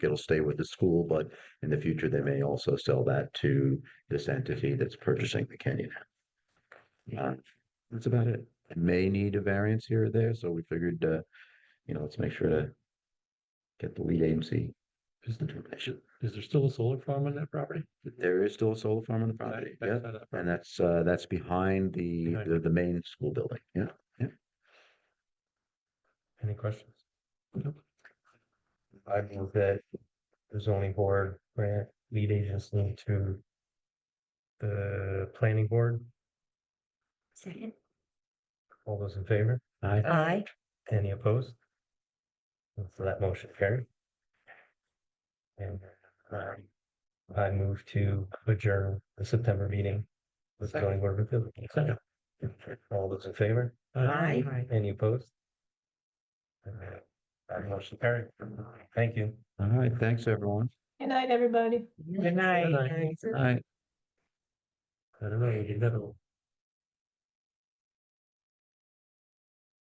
it'll stay with the school, but in the future, they may also sell that to this entity that's purchasing the Kenyon. Uh, That's about it. It May need a variance here or there, so we figured, uh, you know, let's make sure to get the lead agency. Is there- determination. Is there still a solar farm on that property? There is still a solar farm on the Back- property, back Uh, yeah, side of that and property. that's, uh, that's behind the, Behind. the, the main school building, yeah. Any questions? I move that the zoning board grant lead agency to the planning board. Second, All those in favor? Aye. aye, Any opposed? And So that motion carried. And um, I move to adjourn the September meeting with zoning board of appeals. Second. All those in favor? aye. Any opposed? And That motion carried. Thank you. All right, thanks, everyone. Good night, everybody. Good night. night. Nice. All right. I don't know, you did another one.